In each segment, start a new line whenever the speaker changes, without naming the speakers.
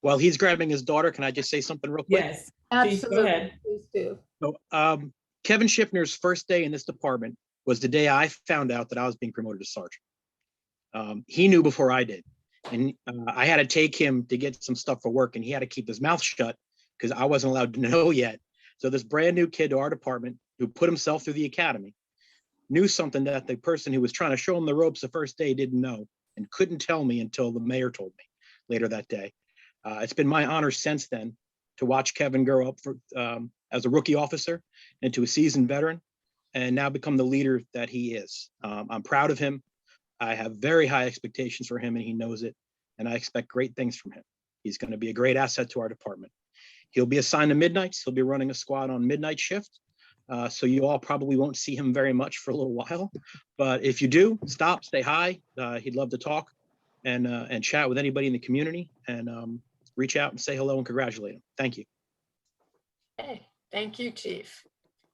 While he's grabbing his daughter, can I just say something real quick?
Yes, please go
Absolutely,
ahead.
please do.
So, um, Kevin Schiffner's first day in this department was the day I found out that I was being promoted to sergeant. Um, he knew before I did. And, uh, I had to take him to get some stuff for work and he had to keep his mouth shut because I wasn't allowed to know yet. So this brand new kid to our department who put himself through the academy knew something that the person who was trying to show him the ropes the first day didn't know and couldn't tell me until the mayor told me later that day. Uh, it's been my honor since then to watch Kevin grow up for, um, as a rookie officer into a seasoned veteran and now become the leader that he is. Um, I'm proud of him. I have very high expectations for him and he knows it. And I expect great things from him. He's going to be a great asset to our department. He'll be assigned to midnights. He'll be running a squad on midnight shift. Uh, so you all probably won't see him very much for a little while, but if you do, stop, say hi. Uh, he'd love to talk and, uh, and chat with anybody in the community and, um, reach out and say hello and congratulate him. Thank you.
Okay, Thank you, Chief.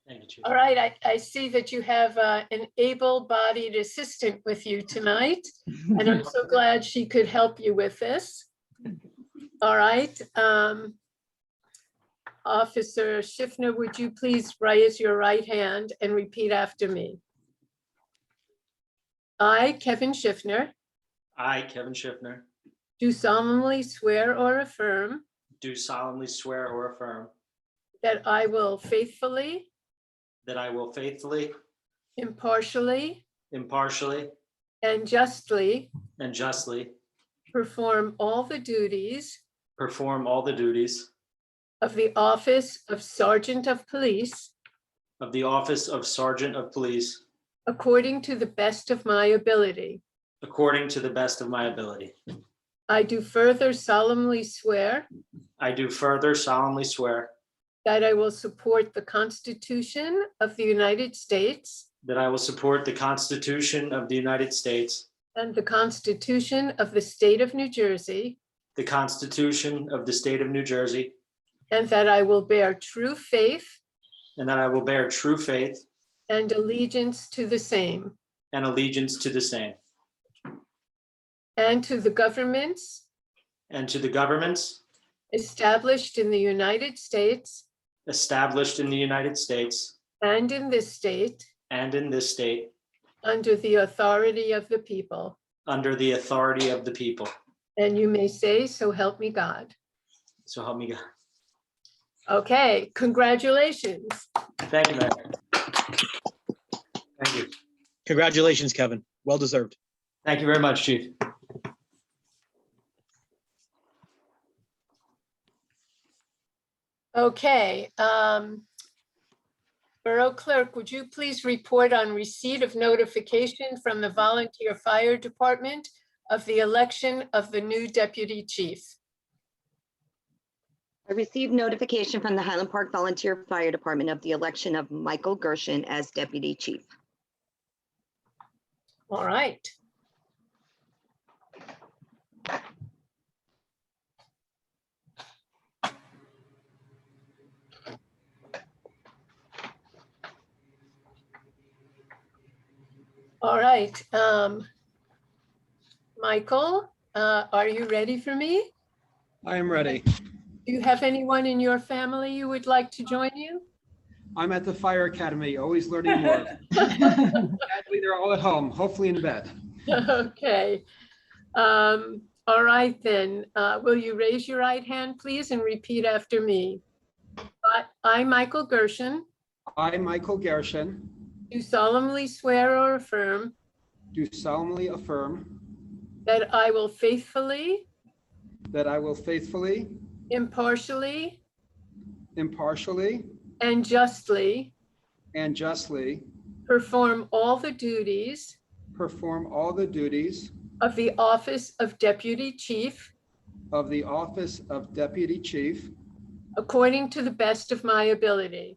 Thank you, Chief.
All right, I, I see that you have uh, an able-bodied assistant with you tonight, and I'm so glad she could help you with this. All right. um, Officer Schiffner, would you please raise your right hand and repeat after me? I, Kevin Schiffner,
I, Kevin Schiffner,
do solemnly swear or affirm
do solemnly swear or affirm
that I will faithfully,
that I will faithfully,
impartially,
impartially,
and justly
and justly
perform all the duties
perform all the duties
of the office of Sergeant of Police
of the office of Sergeant of Police
according to the best of my ability.
according to the best of my ability.
I do further solemnly swear
I do further solemnly swear
that I will support the Constitution of the United States
that I will support the Constitution of the United States,
and the Constitution of the State of New Jersey,
the Constitution of the State of New Jersey,
and that I will bear true faith
and that I will bear true faith
and allegiance to the same
and allegiance to the same,
and to the governments
and to the governments
established in the United States
established in the United States
and in this state
and in this state
under the authority of the people.
under the authority of the people.
And you may say, so help me God.
So help me God.
Okay, congratulations.
Thank you, Mayor. Thank you.
Congratulations, Kevin. Well deserved.
Thank you very much, Chief.
Okay. um, Borough Clerk, would you please report on receipt of notification from the Volunteer Fire Department of the election of the new deputy chief?
I received notification from the Highland Park Volunteer Fire Department of the election of Michael Gershon as deputy chief.
All right. All right. um, Michael, uh, are you ready for me?
I am ready.
Do you have anyone in your family you would like to join you?
I'm at the fire academy, always learning more. Sadly, they're all at home, hopefully in bed.
Okay. Um, All right then, Uh, will you raise your right hand, please, and repeat after me? I- I, Michael Gershon,
I, Michael Gershon,
do solemnly swear or affirm
do solemnly affirm
that I will faithfully,
that I will faithfully,
impartially,
impartially,
and justly
and justly
perform all the duties
perform all the duties
of the office of Deputy Chief
of the office of deputy chief
according to the best of my ability.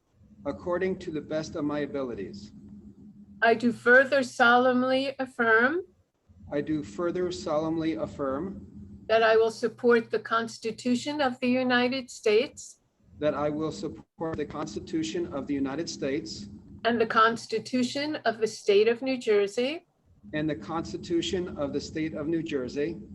according to the best of my abilities.
I do further solemnly affirm
I do further solemnly affirm
that I will support the Constitution of the United States
that I will support the Constitution of the United States
And the Constitution of the State of New Jersey.
and the Constitution of the State of New Jersey